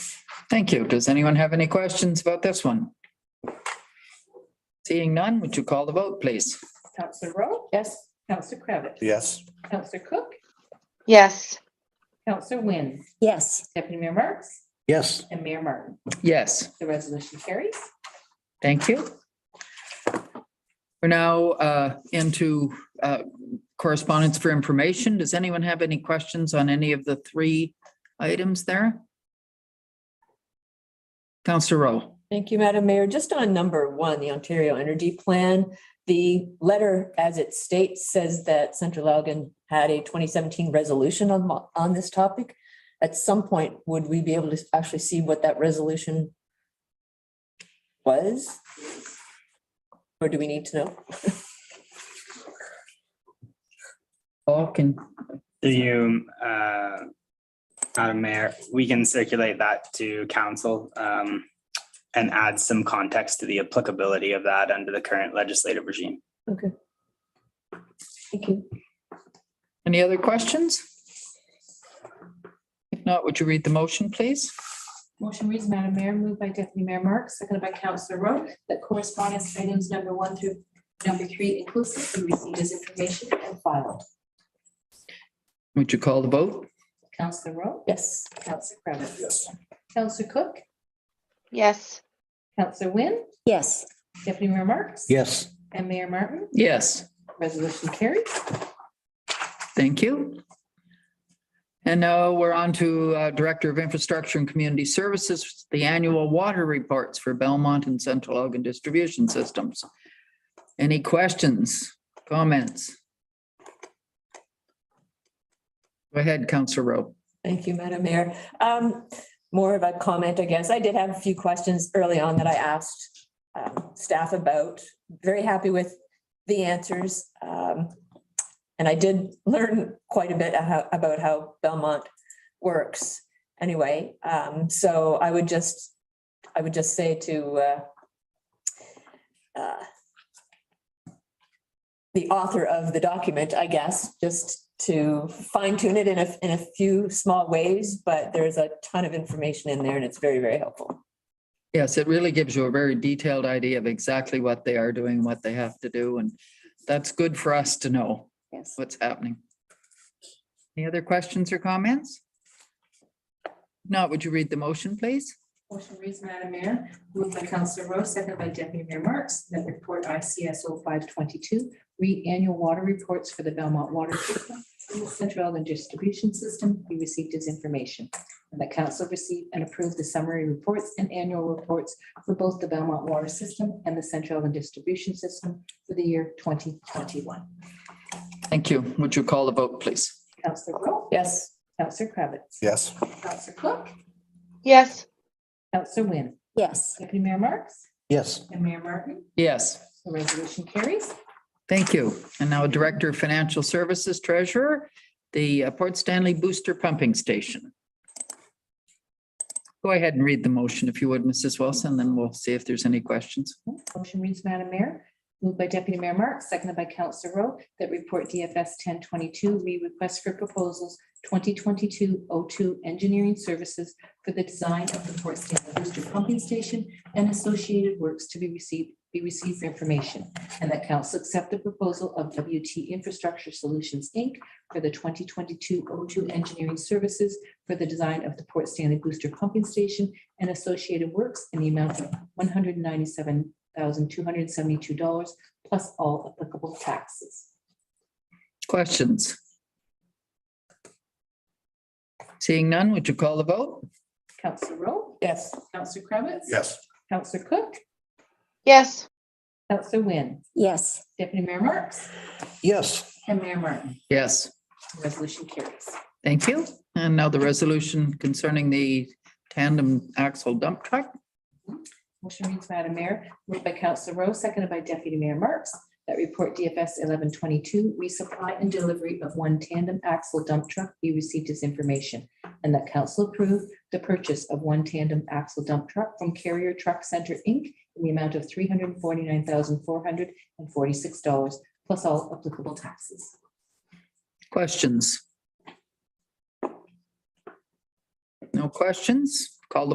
Thank you. Does anyone have any questions about this one? Seeing none, would you call the vote, please? Counselor Rowe? Yes. Counselor Kravitz, Yes. Counselor Cook? Yes. Counselor Wynn? yes, Deputy Mayor Marks? Yes. And Mayor Martin? Yes. The resolution carries. Thank you. We're now uh, into uh, correspondence for information. Does anyone have any questions on any of the three items there? Counselor Rowe. Thank you, Madam Mayor. Just on number one, the Ontario Energy Plan, the letter as it states says that Central Elgin had a twenty seventeen resolution on, mo- on this topic. At some point, would we be able to actually see what that resolution was? Or do we need to know? All can, Do you, uh, Madam Mayor, we can circulate that to council um, and add some context to the applicability of that under the current legislative regime. Okay. Thank you. any other questions? If not, would you read the motion, please? Motion reads, Madam Mayor, moved by Deputy Mayor Marks, seconded by Counselor Rowe, that correspondence items number one through number three inclusive be received as information and filed. Would you call the vote? Counselor Rowe? Yes. Counselor Kravitz, Yes. Counselor Cook? Yes. Counselor Wynn? yes. Deputy Mayor Marks? Yes. And Mayor Martin? Yes. Resolution carries. Thank you. And now we're on to uh, Director of Infrastructure and Community Services, the annual water reports for Belmont and Central Oregon distribution systems. Any questions, comments? Go ahead, Counselor Rowe. Thank you, Madam Mayor. Um, more of a comment, I guess. I did have a few questions early on that I asked um, staff about. Very happy with the answers. Um, and I did learn quite a bit how- about how Belmont works anyway. Um, so I would just, I would just say to uh, uh, the author of the document, I guess, just to fine tune it in a, in a few small ways, but there's a ton of information in there and it's very, very helpful. Yes, it really gives you a very detailed idea of exactly what they are doing, what they have to do, and that's good for us to know Yes. what's happening. Any other questions or comments? Now, would you read the motion, please? Motion reads, Madam Mayor, moved by Counselor Rowe, seconded by Deputy Mayor Marks, that report ICSO five twenty-two, read annual water reports for the Belmont Water System and the Central Island Distribution System be received as information. And that council receive and approve the summary reports and annual reports for both the Belmont Water System and the Central Island Distribution System for the year twenty twenty-one. Thank you. Would you call the vote, please? Counselor Rowe, Yes. Counselor Kravitz, Yes. Counselor Cook, Yes. Counselor Wynn, Yes, Deputy Mayor Marks, Yes. and Mayor Martin. Yes, The resolution carries. thank you. And now Director of Financial Services Treasurer, the uh, Port Stanley Booster Pumping Station. Go ahead and read the motion if you would, Mrs. Wilson, then we'll see if there's any questions. Motion reads, Madam Mayor, moved by Deputy Mayor Marks, seconded by Councillor Rowe, that report DFS ten twenty-two, re request for proposals 2022-02 engineering services for the design of the Port Stanley Booster Pumping Station and associated works to be received, be received for information, and that council accept the proposal of WT Infrastructure Solutions, Inc. for the 2022-02 engineering services for the design of the Port Stanley Booster Pumping Station and associated works in the amount of one hundred ninety-seven thousand two hundred seventy-two dollars plus all applicable taxes. Questions? Seeing none, would you call the vote? Counselor Rowe, Yes. Counselor Kravitz, Yes. Counselor Cook, Yes. Counselor Wynn, yes, Deputy Mayor Marks, Yes. and Mayor Martin. Yes. Resolution carries. Thank you. And now the resolution concerning the tandem axle dump truck. Motion reads, Madam Mayor, moved by Counselor Rowe, seconded by Deputy Mayor Marks, that report DFS eleven twenty-two, resupply and delivery of one tandem axle dump truck be received as information, and that council approve the purchase of one tandem axle dump truck from Carrier Truck Center, Inc. in the amount of three hundred forty-nine thousand four hundred and forty-six dollars, plus all applicable taxes. Questions? No questions?